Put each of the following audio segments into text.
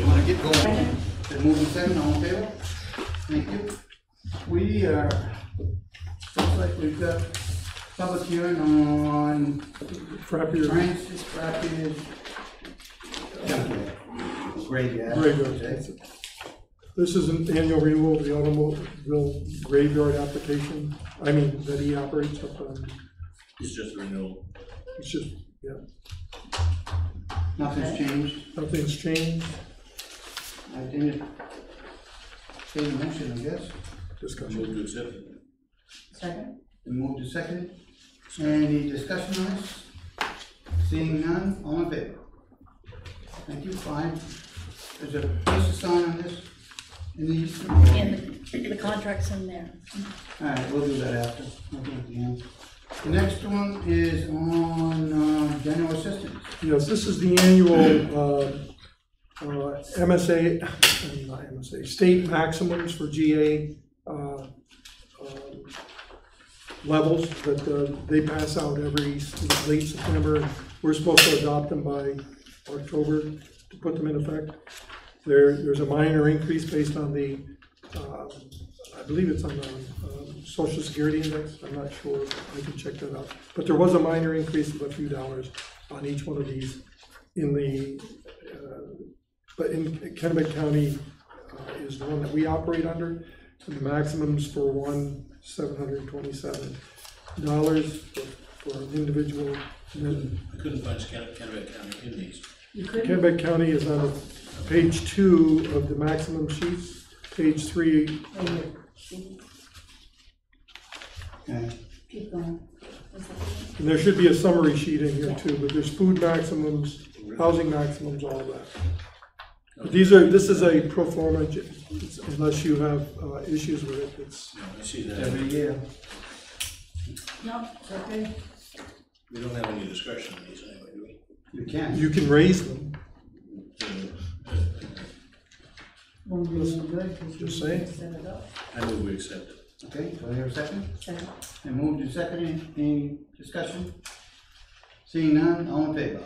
go in. Been moved and seconded, all in favor? Thank you. We are, uh, looks like we've got public hearing on property or Francis Rapids Junkyard. Graveyard. graveyard. This is an annual renewal of the automobile graveyard application, I mean, that he operates up on, It's just renewal. it's just, yeah, Nothing's changed. nothing's changed, I think it, still in motion, I guess. discussion. Move to accept. Second? Been moved and seconded. Any discussion on this? Seeing none, all in favor? Thank you, fine. Is there a place to sign on this? In the easement? And the the contract's in there. All right, we'll do that after, we'll do it at the end. The next one is on, um, general assistance. Yes, this is the annual uh, uh, MSA, not MSA, state maximums for GA uh, um, levels that uh, they pass out every s- late September. We're supposed to adopt them by October to put them in effect. There, there's a minor increase based on the, uh, I believe it's on the um, social security index, I'm not sure, I can check that out. But there was a minor increase of a few dollars on each one of these in the, uh, but in Kennebec County uh, is the one that we operate under, and the maximums for one, seven hundred and twenty-seven dollars for an individual. And then I couldn't find Scan- Kennebec County in these. You couldn't? Kennebec County is on page two of the maximum sheets, page three, Okay, Keep going. and there should be a summary sheet in here too, but there's food maximums, housing maximums, all of that. But these are, this is a pro forma, j- it's- unless you have uh, issues with it, it's, No, I see that. every year. No, it's okay. We don't have any discretion on these anyway, do we? You can. you can raise them, Won't do any good 'cause you Just saying. set it up. I move we accept it. Okay, do I hear a second? Second? And moved and seconded, any discussion? Seeing none, all in favor?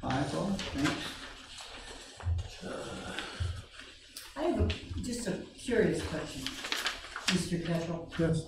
Five, oh, thanks. I have a, just a curious question, Mr. Ketchel. yes.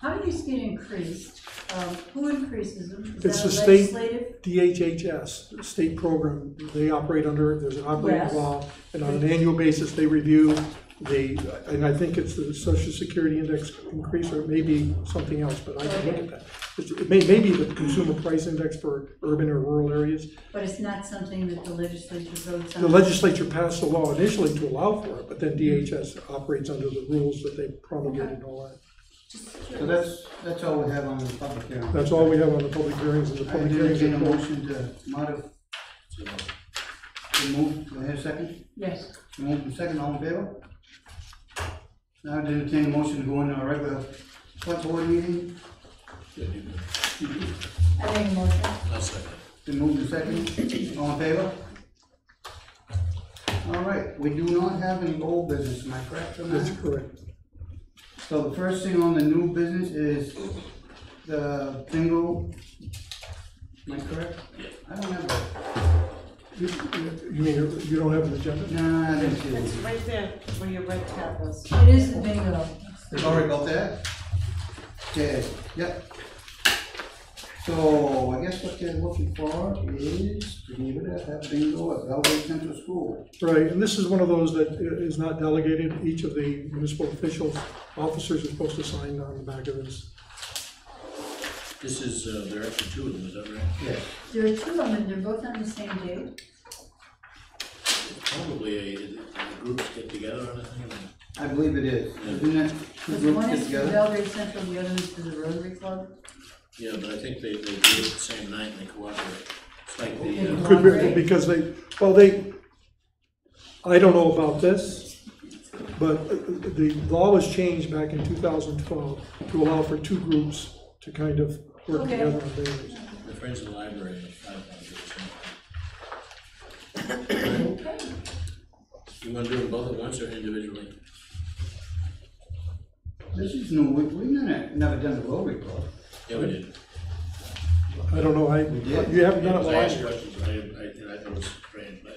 How do these get increased? Um, Who increases them? Is It's that the state- legislative? DHHS, state program, they operate under, there's an operating Yes. law, and on an annual basis, they review the, and I think it's the social security index increase, or it may be something else, but I can look at that. It's- It may, may be the consumer price index for urban or rural areas. But it's not something that the legislature votes on? The legislature passed a law initially to allow for it, but then DHS operates under the rules that they promulgated and all that. Just So curious. that's, that's all we have on the public hearing. That's all we have on the public hearings, and the I public hearings entertain a are closed. motion to modify, So, to move, do I hear a second? Yes. Moved and seconded, all in favor? Now I entertain a motion to go into a regular select board meeting, good, you can- I make a motion. I'll second. then move and seconded, all in favor? All right, we do not have any old business, am I correct on that? That's correct. So the first thing on the new business is the bingo. Am I correct? Yeah. I don't have it. You you- you mean, you don't have an agenda? No, I didn't see It's it. right there where your red tab was. It is the bingo. Sorry about that. Okay, yep. So I guess what they're looking for is to be able to have bingo at Belgrade Central School. Right, and this is one of those that i- is not delegated, each of the municipal officials, officers are supposed to sign on the back of this. This is, uh, there are actually two of them, is that right? Yes. There are two of them, they're both on the same day. Probably a, the groups get together on it, I mean, I believe it is. Isn't that two Because groups one get is for together? Belgrade Central, the other is for the Rotary Club. yeah, but I think they, they do it the same night and they cooperate. It's like the, uh, Could be, because they, well, they, I don't know about this, but uh, the law was changed back in two thousand twelve to allow for two groups to kind of work Okay. together on dailies. the Friends of the Library, and the Five Pound Group, so. You wanna do them both at once or individually? This is new, we, we've never, never done the Rotary Club. Yeah, we did. I don't know, I, did. you haven't Yeah, done it because I last asked year. questions, and I, I, and I thought it was strange,